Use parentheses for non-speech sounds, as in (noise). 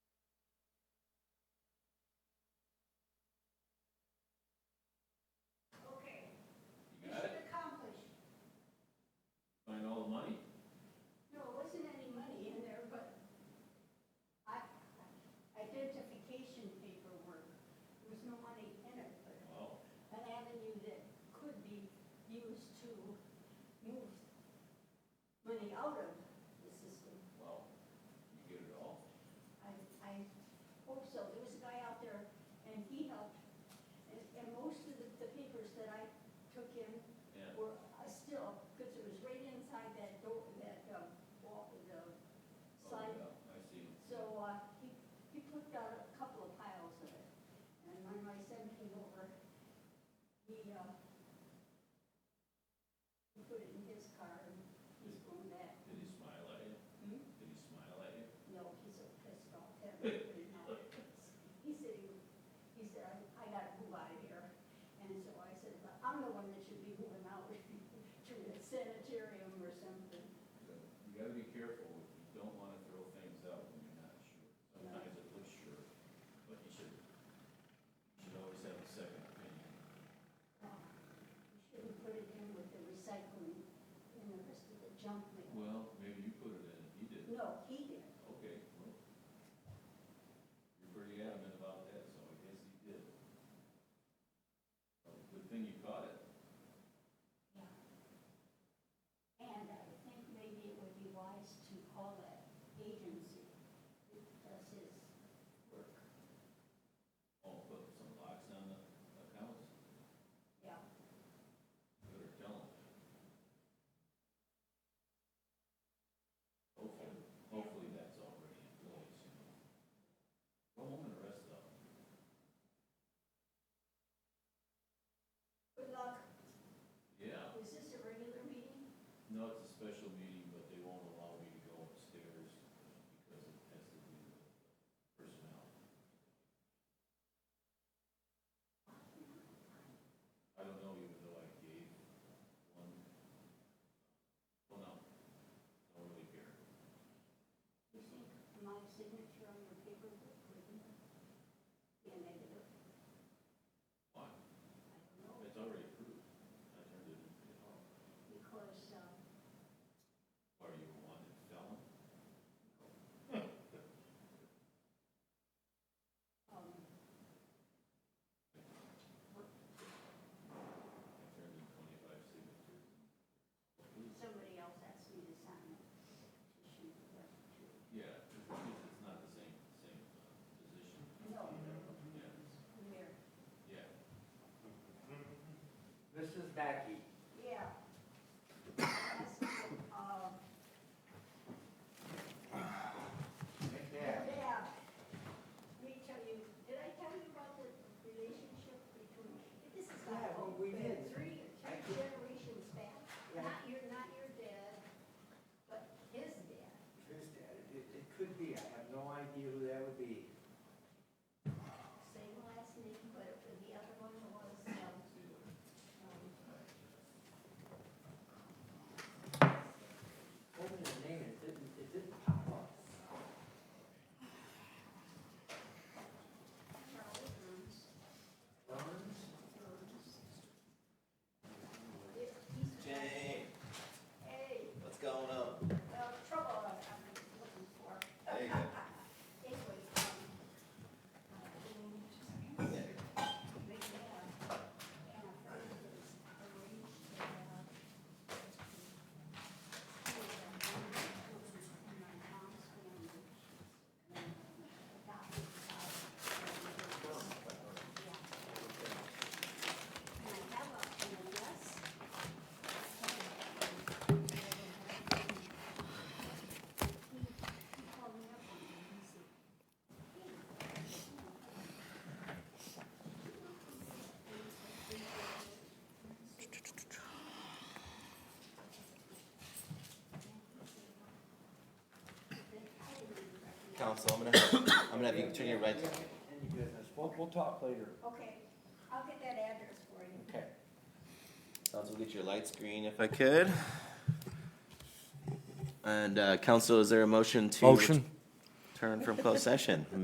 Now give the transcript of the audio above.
so there was a guy out there and he helped. And, and most of the, the papers that I took in Yeah. were uh, still, because it was right inside that door, that, uh, wall, the side. Oh, yeah, I see. So, uh, he, he put out a couple of piles of it. And when my son came over, he, uh, he put it in his car and he's going back. Did he smile at you? Did he smile at you? No, he's so pissed off that we put it out. He said, he- he said, I I gotta move out of here. And so I said, "Well, I'm the one that should be moving out (laughs) to the sanitarium or something. You gotta be careful, you don't wanna throw things out when you're not sure. Sometimes it looks sure, but you should, you should always have a second opinion. Uh, We shouldn't put it in with the recycling and the rest of the junk mail. Well, maybe you put it in, and he didn't. No, he did. Okay, well, you're pretty adamant about that, so I guess he did. Well, Good thing you caught it. Yeah. And I think maybe it would be wise to call an agency that does his work. Oh, put some locks on the accounts, Yeah. better tell him. Hopefully, hopefully that's already in place, you know. Go home and rest up. Good luck. Yeah, Is this a regular meeting? no, it's a special meeting, but they won't allow me to go upstairs uh, because it has to do with personnel. I don't know, even though I gave one, well, no, don't really care. You think my signature on your paper would be a negative? Why? I don't know, It's already approved. I turned it in. because, uh, Are you a wanted felon? um, I turned in twenty-five signatures. somebody else asked me to sign a petition for that too. Yeah, because it's not the same, same uh, position. No. Yeah, Mayor. yeah. Mrs. Mackey, Yeah. Uh, McNabb, Yeah. Let me tell you, did I tell you about the relationship between, this is Yeah, like. well, we did. Three, I three did. generations back, Yeah. not your, not your dad, but his dad. his dad, it, it could be, I have no idea who that would be. Same last name, but the other one was, um, See you later. um, Told me the name, it didn't, it didn't pop up. Charlie Burns. Burns? Burns. Yeah, he's- Jay, Hey, what's going on? well, trouble I'm looking for. There you go. Anyway, um, um, They Yeah. have, and a friend has arranged to have. My mom's family. um, adopted out. Yeah. And I have a, and a yes. He, he called me up one day, he said, Council, I'm gonna, I'm gonna have you turn your right. Any business, we'll, we'll talk later. Okay, I'll get that address for you. Okay. Council, get your lights green if I could. And, uh, council, is there a motion to? Motion. Turn from closed session.